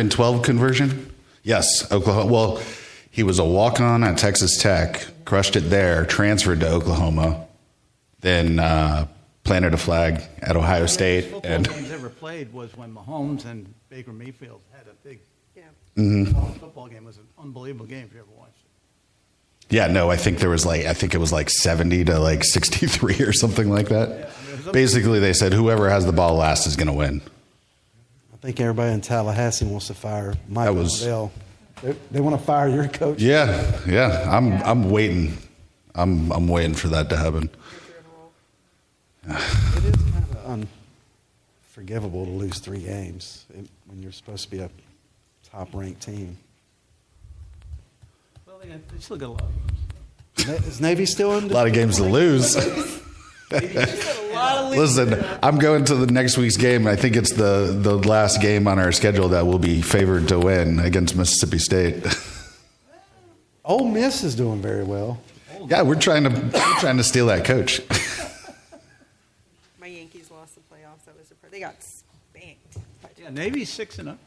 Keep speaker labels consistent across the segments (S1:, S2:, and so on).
S1: 112 conversion? Yes, Oklahoma. Well, he was a walk on at Texas Tech, crushed it there, transferred to Oklahoma, then uh, planted a flag at Ohio State.
S2: Football
S1: And
S2: games ever played was when Mahomes and Baker Mayfield had a big
S3: Yeah.
S1: Mm-hmm.
S2: college football game. It was an unbelievable game if you ever watched it.
S1: yeah, no, I think there was like, I think it was like 70 to like 63 or something like that.
S2: I mean, it was up-
S1: Basically, they said whoever has the ball last is going to win.
S4: I think everybody in Tallahassee wants to fire Mike
S1: That was-
S4: Norvell. They, they want to fire your coach.
S1: Yeah, yeah. I'm I'm waiting. I'm I'm waiting for that to happen.
S4: It is kind of unforgivable to lose three games when you're supposed to be a top-ranked team.
S2: Well, they, they still got a lot. of games.
S4: Na- Is Navy still in?
S1: A lot of games to lose. Listen, I'm going to the next week's game. I think it's the the last game on our schedule that will be favored to win against Mississippi State.
S4: Ole Miss is doing very well.
S1: yeah, we're trying to we're trying to steal that coach.
S3: My Yankees lost the playoffs. That was the part. They got spanked. by
S2: Yeah, Navy's six and up.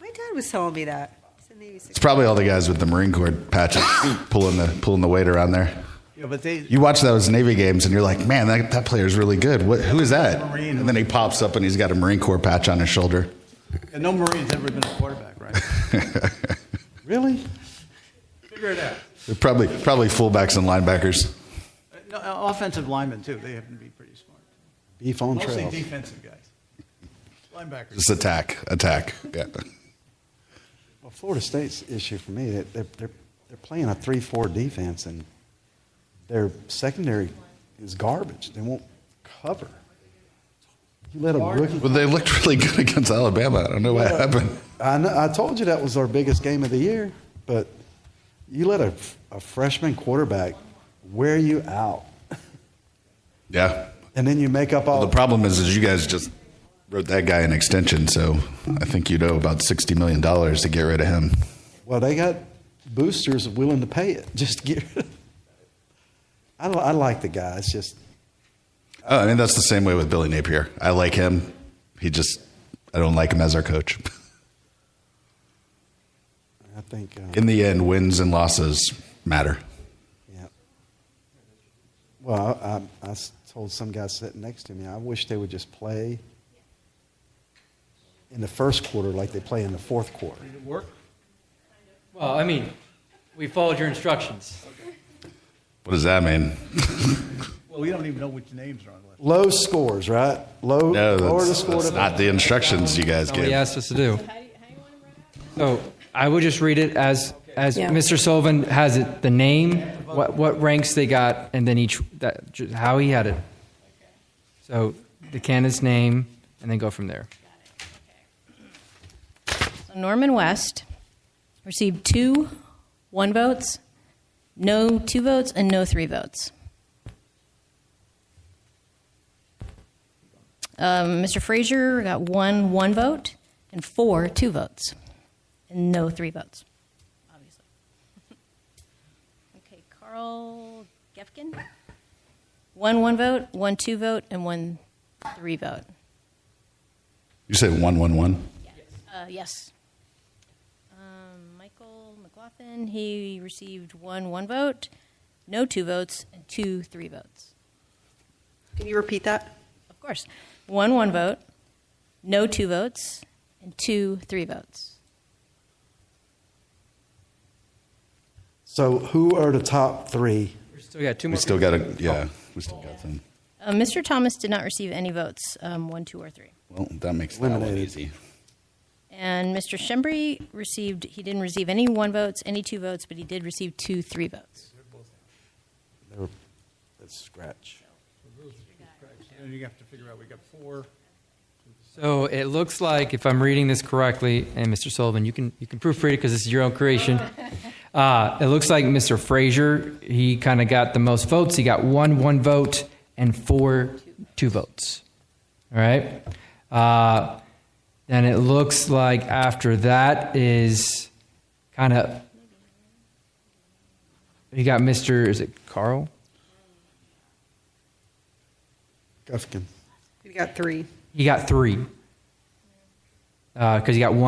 S3: My dad was telling me that. He said Navy
S1: It's probably all the guys with the Marine Corps patches pulling the pulling the weight around there.
S2: Yeah, but they.
S1: You watch those Navy games and you're like, man, that, that player is really good. What, who is that?
S2: Marine.
S1: And then he pops up and he's got a Marine Corps patch on his shoulder.
S2: and no Marine's ever been a quarterback, right?
S4: Really?
S2: Figure it out.
S1: They're Probably, probably fullbacks and linebackers.
S2: Uh, No, uh, offensive linemen too. They happen to be pretty smart.
S4: Beef on
S2: Mostly
S4: trail.
S2: defensive guys. Linebackers.
S1: Just attack, attack. Yeah.
S4: Well, Florida State's issue for me, that they're, they're, they're playing a 3 4 defense, and their secondary is garbage. They won't cover. You let a rookie.
S1: Well, they looked really good against Alabama. I don't know what happened.
S4: I, know, I told you that was our biggest game of the year, but you let a, a freshman quarterback wear you out,
S1: Yeah.
S4: and then you make up all
S1: Well, the problem is, is you guys just wrote that guy an extension, so I think you owe about sixty million dollars to get rid of him.
S4: Well, they got boosters willing to pay it just to get. I, li- I like the guy. It's just
S1: Oh, I mean, that's the same way with Billy Napier. I like him. He just, I don't like him as our coach.
S4: I think uh,
S1: In the end, wins and losses matter.
S4: yeah. Well, I, I s- told some guy sitting next to me, I wish they would just play in the first quarter like they play in the fourth quarter.
S2: Did it work?
S5: Well, I mean, we followed your instructions.
S1: What does that mean?
S2: Well, we don't even know which names are on the list.
S4: Low scores, right? Low.
S1: No,
S4: lower the
S1: that's,
S4: score
S1: that's
S4: to-
S1: not the instructions you guys
S5: Nobody
S1: gave.
S5: asked us to do. So I would just read it as as
S6: Yeah.
S5: Mr. Sullivan has it, the name, what what ranks they got, and then each that ju- how he had it. So the candidate's name, and then go from there.
S6: Norman West received two one votes, no two votes, and no three votes. Um, Mr. Frazier got one one vote and four two votes, and no three votes, obviously. okay, Carl Gefkin. One one vote, one two vote, and one three vote.
S1: You said one, one, one.
S6: Uh, yes. Um, Michael McLaughlin, he received one one vote, no two votes, and two three votes.
S3: Can you repeat that?
S6: Of course, one one vote, no two votes, and two three votes.
S4: So who are the top three?
S5: We still got two
S1: We
S5: more.
S1: still got a yeah. We still got some.
S6: Uh, Mr. Thomas did not receive any votes, um, one, two, or three.
S1: Well, that makes that one
S4: Eliminated.
S1: easy.
S6: And Mr. Shembri received, he didn't receive any one votes, any two votes, but he did receive two three votes.
S4: They were, let's scratch.
S2: And you have to figure out, we got four.
S5: So it looks like, if I'm reading this correctly, and Mr. Sullivan, you can you can proofread it because this is your own creation. Uh, it looks like Mr. Frazier, he kind of got the most votes. He got one one vote and four two votes. All right. Uh, and it looks like after that is kind of you got Mr. Is it Carl?
S4: Gufkin.
S3: We got three.
S5: He got three. because Uh, he got one.